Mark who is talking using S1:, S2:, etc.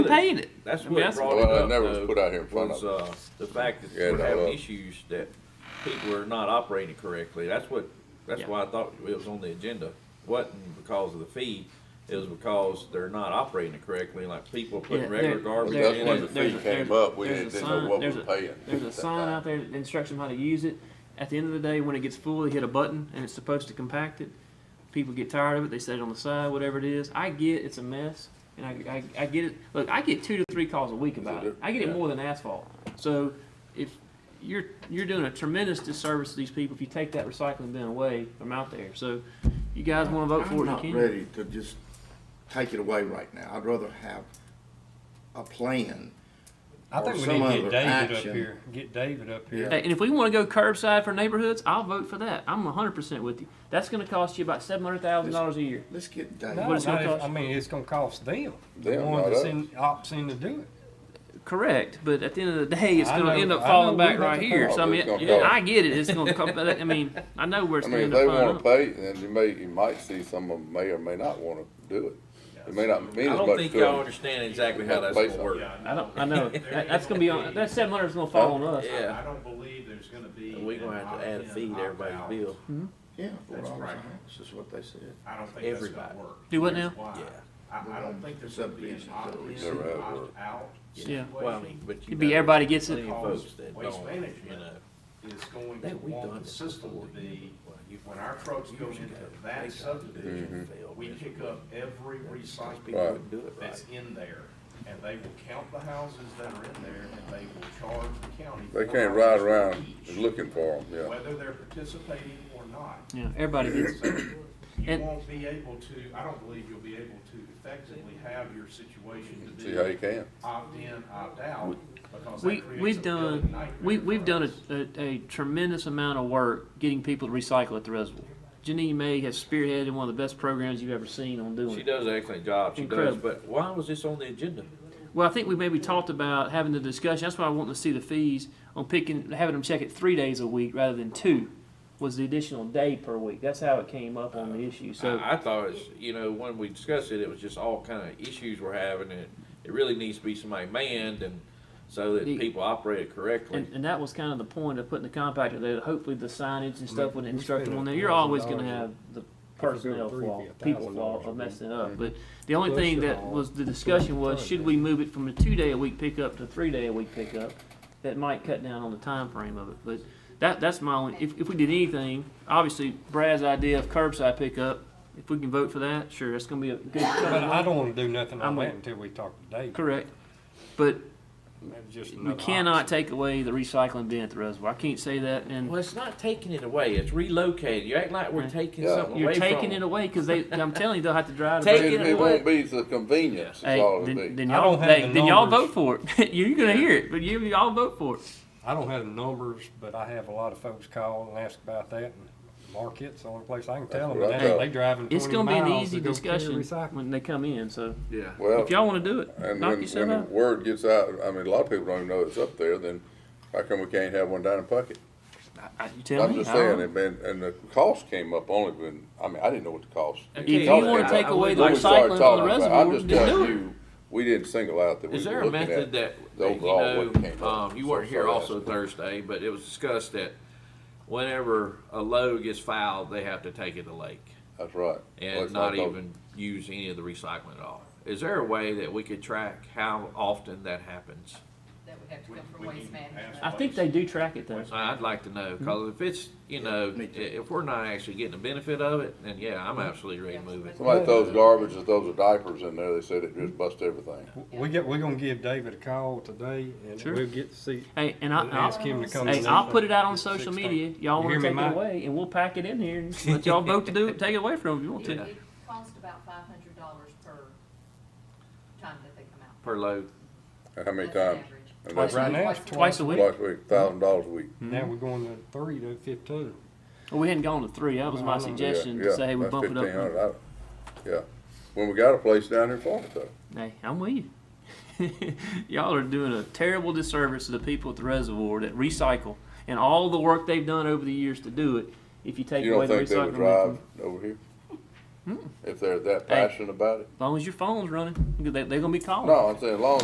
S1: paid it.
S2: That's
S1: I
S2: what
S1: mean, that's-
S2: brought it
S3: Well, I
S2: up,
S3: never was
S2: though,
S3: put out here in front
S2: was,
S3: of
S2: uh, the fact that
S3: Yeah,
S2: we're
S3: no,
S2: having
S3: uh,
S2: issues that people are not operating correctly. That's what, that's
S1: Yeah.
S2: why I thought it was on the agenda. Wasn't because of the fee, it was because they're not operating it correctly, like people
S1: Yeah,
S2: putting regular
S1: they're-
S2: garbage
S1: they're-
S3: That's
S2: in.
S3: when
S1: there's-
S3: the
S2: and-
S1: there's
S3: fee
S1: a-
S3: came
S1: there's-
S3: up, we
S1: there's a
S3: didn't know
S1: sign-
S3: what we
S1: there's
S3: were
S1: a-
S3: paying.
S1: There's a sign out there, that instructs them how to use it. At the end of the day, when it gets full, they hit a button and it's supposed to compact it. People get tired of it, they set it on the side, whatever it is. I get it's a mess, and I, I, I get it. Look, I get two to three calls a week about it. I get it more than asphalt. So if you're, you're doing a tremendous disservice to these people if you take that recycling bin away from out there. So you guys wanna vote for
S4: I'm
S1: it, you
S4: not
S1: can.
S4: ready to just take it away right now. I'd rather have a plan.
S5: I
S4: or
S5: think we
S4: some
S5: need to get
S4: other
S5: David
S4: action.
S5: up here. Get David up here.
S4: Yeah.
S1: Hey, and if we want to go curbside for neighborhoods, I'll vote for that. I'm 100% with you. That's going to cost you about $700,000 a year.
S4: Let's get Dave.
S5: No,
S1: What it's gonna
S5: not if-
S1: cost?
S5: I mean, it's gonna cost them. The
S3: Them,
S5: one
S3: not
S5: that's
S3: us.
S5: in, opts in to do it.
S1: Correct, but at the end of the day, it's
S5: I
S1: going to
S5: know-
S1: end up
S5: I
S1: falling
S5: know
S1: back
S5: we got
S1: right
S5: the
S1: here. So I
S3: problem.
S1: mean,
S3: It's gonna
S1: yeah,
S3: cost.
S1: I get it. It's going to cost. but I mean, I know where it's
S3: I mean, if
S1: going to
S3: they
S1: end up.
S3: wanna
S1: falling up.
S3: pay, then you may, you might see some of them may or may not wanna do it. It may not mean
S2: I
S3: as
S2: don't
S3: much
S2: think y'all
S3: to them.
S2: understand exactly how that's
S3: Place
S2: gonna work.
S6: Yeah,
S1: I don't. I know that, that's going to be on. That 700 is going to fall on us.
S2: Yeah.
S6: I don't believe there's gonna be.
S2: We're gonna have to add a
S6: an
S2: fee to everybody's
S6: opt-out.
S2: bill.
S4: Yeah, for
S6: That's
S4: all
S6: right.
S4: time. That's just what they said.
S6: I don't think that's
S2: Everybody.
S6: gonna work.
S1: Do what now?
S6: Here's why.
S2: Yeah.
S6: I, I don't think there's gonna be an
S4: Subdivision,
S6: opt-in,
S4: so
S3: it's- Never have worked.
S6: opt-out
S1: Yeah.
S2: Well, I
S6: situation.
S2: mean, but you
S1: It'd be
S2: got
S1: everybody gets
S2: plenty
S1: it.
S2: of folks that
S6: Waste
S2: don't,
S6: management.
S2: you know.
S6: is going to
S2: That we've done
S6: want the
S2: this
S6: system
S2: before.
S6: to be,
S2: Well, you-
S6: when our trucks go
S2: years
S6: into
S2: ago, they
S6: that
S2: got
S6: subdivision,
S2: Mhm.
S6: we pick up every
S2: People
S6: recycling
S2: wouldn't do it right.
S6: that's in there. And they will count the houses that are in there and they will charge the county.
S3: They
S6: four
S3: can't ride
S6: dollars
S3: around
S6: each,
S3: looking for them, yeah.
S6: Whether they're participating or not.
S1: Yeah, everybody gets. it.
S6: So You
S1: And-
S6: won't be able to, I don't believe you'll be able to effectively have your situation to
S3: See how you
S6: be
S3: can.
S6: opt-in, opt-out, because
S1: We,
S6: that creates a
S1: we've
S6: building
S1: done,
S6: nightmare
S1: we, we've
S6: for
S1: done
S6: us.
S1: a, a, a tremendous amount of work getting people to recycle at the reservoir. Janine May has spearheaded one of the best programs you've ever seen on doing
S2: She
S1: it.
S2: does an excellent job, she does,
S1: Incredible.
S2: but why was this on the agenda?
S1: Well, I think we maybe talked about having the discussion. That's why I want to see the fees on picking, having them check it three days a week rather than two was the additional day per week. That's how it came up on the issue. So
S2: I, I thought it's, you know, when we discussed it, it was just all kind of issues we're having, and it really needs to be somebody manned, and so that
S1: The-
S2: people operate it correctly.
S1: And, and that was kind of the point of putting the compactor there. that Hopefully, the signage and stuff would
S5: we
S1: instruct them
S5: spend
S1: on
S5: a
S1: there. You're
S5: thousand
S1: always going to
S5: dollars
S1: have the
S5: go
S1: personnel
S5: three,
S1: flaw,
S5: it'd be a
S1: people
S5: thousand
S1: flaw
S5: dollars a
S1: of
S5: week.
S1: messing it up. But the only thing
S5: Plus it
S1: that
S5: all,
S1: was the discussion was,
S5: ton
S1: should
S5: of
S1: we move it from a two-day a week pickup to a three-day a week pickup? That might cut down on the time frame of it. But that that's my only. If, if we did anything, obviously Brad's idea of curbside pickup. If we can vote for that, sure, that's going to be a good.
S5: But I don't wanna do nothing
S1: I'm
S5: on
S1: with-
S5: that until we talk to David.
S1: Correct, but
S5: Maybe just
S1: we
S5: another
S1: cannot
S5: option.
S1: take away the recycling bin at the reservoir. I can't say that and.
S2: Well, it's not taking it away, it's relocating, you act like we're
S1: Right.
S2: taking
S3: Yeah.
S2: something
S1: You're
S2: away from
S1: taking it
S2: them.
S1: away because they. I'm telling you, they'll have to drive.
S2: Take
S1: it.
S2: it
S3: It it
S2: away.
S3: won't be the convenience, is
S1: Hey,
S3: all it'll
S1: then,
S3: be.
S1: then
S5: I
S1: y'all,
S5: don't have
S1: they,
S5: the
S1: then y'all vote
S5: numbers.
S1: for it. You're gonna hear it, but you y'all vote for it.
S5: I don't have the numbers, but I have a lot of folks call and ask about that and Marquette's the only place I can tell them,
S3: what I
S5: that they
S3: thought.
S5: they driving
S1: It's
S5: twenty
S1: gonna be an
S5: miles
S1: easy
S5: to go carry
S1: discussion
S5: recycling.
S1: when they come in. So
S2: Yeah.
S3: Well,
S1: if y'all want to do it,
S3: and
S1: knock
S3: when,
S1: yourself
S3: when the
S1: out.
S3: word gets out, I mean, a lot of people don't even know it's up there, then how come we can't have one down in Puckett?
S1: I- You tell
S3: I'm
S1: me.
S3: just
S1: I don't
S3: saying, and then, and the cost came up only when, I mean, I didn't know what the cost.
S2: If
S3: the
S1: If you
S3: cost
S1: want
S3: came
S1: to
S3: up.
S1: take away the
S3: When we started
S1: recycling from the
S3: talking about it, I'm
S1: reservoir,
S3: just
S1: then do
S3: telling
S1: it.
S3: you, we didn't single out that we
S2: Is
S3: were
S2: there a
S3: looking
S2: method
S3: at
S2: that,
S3: the
S2: that, you
S3: overall what came
S2: know,
S3: up.
S2: um, you weren't
S3: So
S2: here
S3: sorry,
S2: also
S3: that's-
S2: Thursday, but it was discussed that whenever a load gets filed, they have to take it to lake.
S3: That's right. Well,
S2: and
S3: it's
S2: not
S3: like those-
S2: even use any of the recycling at all. Is there a way that we could track how often that happens?
S7: that would have to
S6: We-
S7: come from
S6: we
S7: waste
S6: need to ask
S7: management.
S1: I think they do track it though.
S6: Waste-
S2: I- I'd like to know,
S3: Hmm.
S2: because if it's, you know, i-
S4: me too.
S2: if we're not actually getting the benefit of it, then yeah, I'm absolutely ready to move it.
S3: Somebody throws garbage or throws a diapers in there, they said it just busts everything.
S5: We get, we're gonna give David a call today and
S1: Sure.
S5: we'll get to see,
S1: Hey, and I,
S5: and ask
S1: I'll,
S5: him to come.
S1: hey,
S5: to
S1: I'll
S5: the-
S1: put it out on
S5: Six
S1: social
S5: thirty.
S1: media. Y'all
S5: You
S1: want
S5: hear
S1: to
S5: me,
S1: take it
S5: Mike?
S1: away, and we'll pack it in here and just let y'all vote to do it. Take it away from them if you want
S7: It
S1: to.
S7: would cost about five hundred dollars per time that they come out.
S2: Per load,
S3: And How many
S7: That's an
S3: times?
S7: average.
S3: And
S1: Twice
S3: that's
S1: a
S5: Right now, it's
S1: Twice a week.
S3: Twice a week, thousand dollars a week.
S5: Now we're going to three to fifteen.
S1: Well, we hadn't gone to three. That was my
S5: Yeah,
S1: suggestion
S3: Yeah,
S1: to say, hey, we
S3: that's
S1: bump it up.
S3: 1,500. I- Yeah, when we got a place down here for it though.
S1: Hey, I'm with you. Y'all are doing a terrible disservice to the people at the reservoir that recycle and all the work they've done over the years to do it. If you take
S3: You
S1: away
S3: don't
S1: the
S3: think they
S1: recycling, Hmm. bin
S3: would
S1: from-
S3: drive over here? if they're that
S1: Hey.
S3: passionate about it.
S1: As long as your phone's running, they, they're gonna be calling. Oh.
S3: No, I'm saying, as long